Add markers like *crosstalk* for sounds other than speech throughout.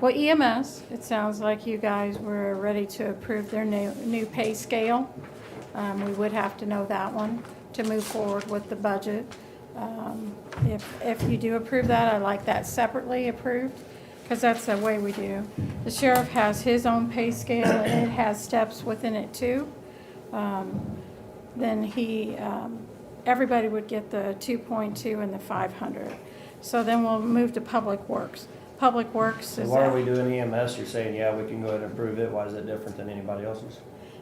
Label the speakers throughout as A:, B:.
A: Well, EMS, it sounds like you guys were ready to approve their new, new pay scale. Um, we would have to know that one to move forward with the budget. Um, if, if you do approve that, I'd like that separately approved, because that's the way we do. The sheriff has his own pay scale, and it has steps within it too. Um, then he, um, everybody would get the 2.2 and the 500. So then we'll move to Public Works. Public Works is.
B: Why are
A: uh,
B: we doing EMS? You're saying, yeah, we can go ahead and approve it. Why is it different than anybody else's?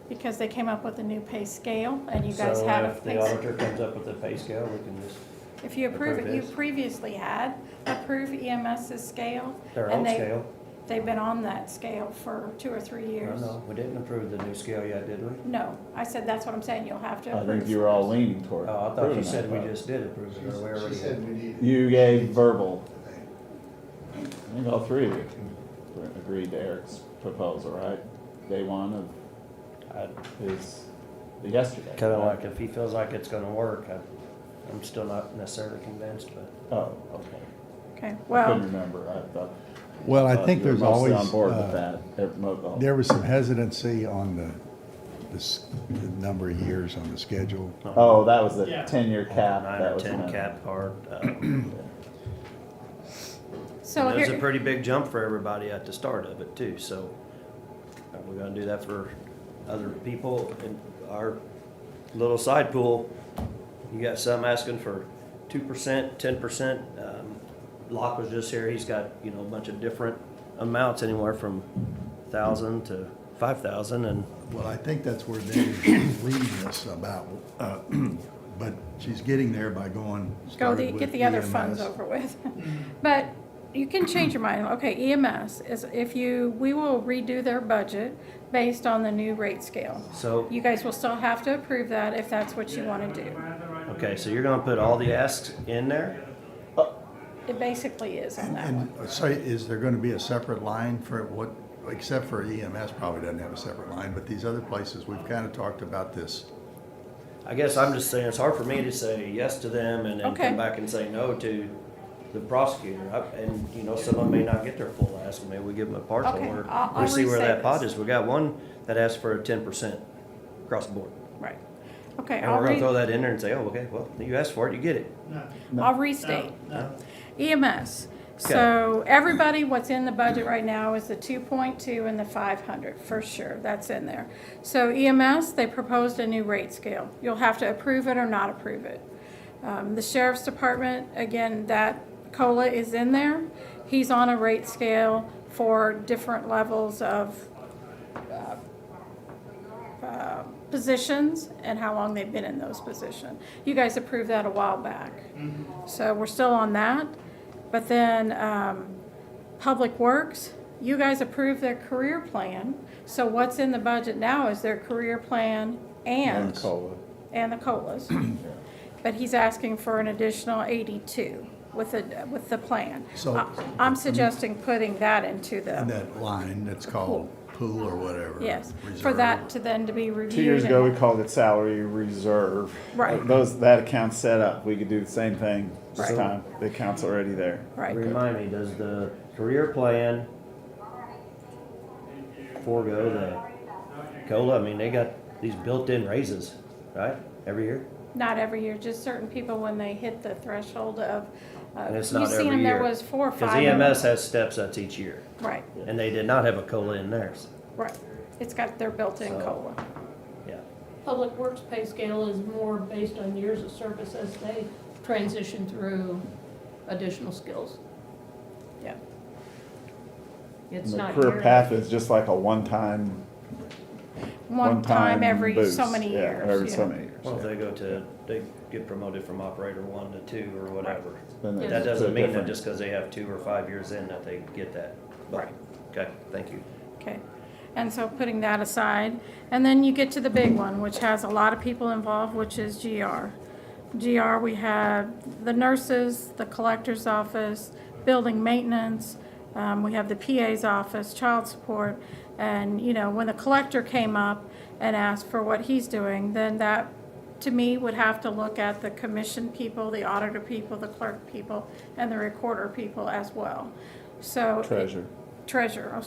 A: Because they came up with a new pay scale, and you guys
B: So
A: have. a
B: if the
A: pay scale.
B: auditor comes up with a pay scale, we can just,
A: If you approve it,
B: approve
A: you
B: this.
A: previously had approved EMS's scale.
B: their
A: and
B: own
A: they-
B: scale.
A: They've been on that scale for two or three
B: No,
A: years.
B: no, we didn't approve the new scale yet, did we?
A: No, I said, that's what I'm saying, you'll have to
C: I
A: approve.
C: think you were all leaning toward.
B: Oh, I thought
C: approving
B: you
C: that,
B: said we
C: but
B: just did approve it, or we
D: She
B: already did.
D: said we needed.
C: You gave verbal,
D: Okay.
C: I think all three of you agreed to Eric's proposal, right? Day one of his, yesterday.
B: Kind of like, if he feels like it's gonna work, I, I'm still not necessarily convinced, but.
C: Oh, okay.
A: Okay,
C: I
A: well.
C: couldn't remember, I thought.
E: Well, I
C: thought
E: think
C: you were
E: there's
C: mostly
E: always,
C: On board with
E: uh,
C: that. Ev- mo- oh.
E: there was some hesitancy on the, this, the number of years on the schedule.
C: Oh, that was the
F: Yeah.
C: ten-year cap.
B: Nine
C: that
B: or
C: was
B: ten
C: in it.
B: cap part. um,
A: So
B: There's a
A: here,
B: pretty big jump for everybody at the start of it too, so are we gonna do that for other people in our little side pool? You got some asking for two percent, ten percent. um, Locke was just here, he's got, you know, a bunch of different amounts, anywhere from thousand to five thousand and
E: Well, I think that's where David's leading us about, uh, *clears throat* but she's getting there by going.
A: go the,
E: started
A: get
E: with
A: the
E: E
C: E
A: other funds
E: EMS.
A: over
C: *laughs*
A: with. But you can change your mind, okay, EMS is, if you, we will redo their budget based on the new rate scale.
B: so.
A: You guys will still have to approve that if that's what you wanna do.
B: Okay, so you're gonna put all the asks in there?
A: It basically is on
E: And,
A: that one.
E: and so is there gonna be a separate line for what, except for EMS probably doesn't have a separate line, but these other places, we've kinda talked about this.
B: I guess I'm just saying, it's hard for me to say yes to them and then
A: Okay.
B: come back and say no to the prosecutor. I- And, you know, some of them may not get their full ask, maybe we give them a partial
A: Okay,
B: or
A: I'll-
B: we
A: I'll
B: see where
A: restate
B: that pot
A: this.
B: is. We got one that asked for a ten percent across the board.
A: Right. Okay,
B: And
A: I'll
B: we're gonna
A: re,
B: throw that in there and say, oh, okay, well, you asked for it, you get it.
F: No,
A: I'll
F: no,
A: restate.
F: no.
A: EMS. So everybody, what's in the budget right now is the two point two and the five hundred, for sure, that's in there. So EMS, they proposed a new rate scale. You'll have to approve it or not approve it. Um, the sheriff's department, again, that COLA is in there. He's on a rate scale for different levels of uh, positions and how long they've been in those positions. You guys approved that a while back. So we're still on that. But then, um, Public Works, you guys approved their career plan. So what's in the budget now is their career plan
C: And
A: and,
C: cola.
A: and the COLAs. But he's asking for an additional eighty-two with the, with the plan.
E: So-
A: I- I'm suggesting putting that into
E: And
A: the,
E: that line that's called pool or whatever.
A: yes, for
E: reserve.
A: that to then to be reviewed.
C: Two years ago,
A: and-
C: we called it salary reserve.
A: Right.
C: Those, that account's set up. We could do the same thing this
A: Right.
C: time. The account's already there.
A: Right.
B: Remind me, does the career plan forego the COLA? I mean, they got these built-in raises, right, every year?
A: Not every year, just certain people when they hit the threshold of, uh,
B: And
A: you've
B: it's not
A: seen
B: every
A: them, there
B: year.
A: was four or
B: Because E
A: five. of them.
B: EMS has steps, that's each year.
A: Right,
B: And they did not have a COLA in theirs.
A: right. It's got their built-in
B: So-
A: COLA.
B: Yeah.
G: Public Works pay scale is more based on years of service as they transition through additional skills.
A: Yeah.
G: It's
C: And the
G: not
C: career
G: yearly.
C: path is just like a one-time,
A: One
C: one-time
A: time every so
C: boost.
A: many
C: Yeah,
A: years.
C: Every so
A: yeah.
C: many years.
B: Well, if
C: yeah.
B: they go to, they get promoted from operator one to two or whatever.
C: Then they
G: Yes.
B: That
C: just put
B: doesn't
C: a
B: mean that
C: different-
B: just because they have two or five years in that they get that. But-
A: Right.
B: Okay, thank you.
A: Okay, and so putting that aside, and then you get to the big one, which has a lot of people involved, which is GR. GR, we have the nurses, the collector's office, building maintenance, um, we have the PA's office, child support. And, you know, when the collector came up and asked for what he's doing, then that, to me, would have to look at the commission people, the auditor people, the clerk people, and the recorder people as well. So.
C: Treasure.
A: treasurer,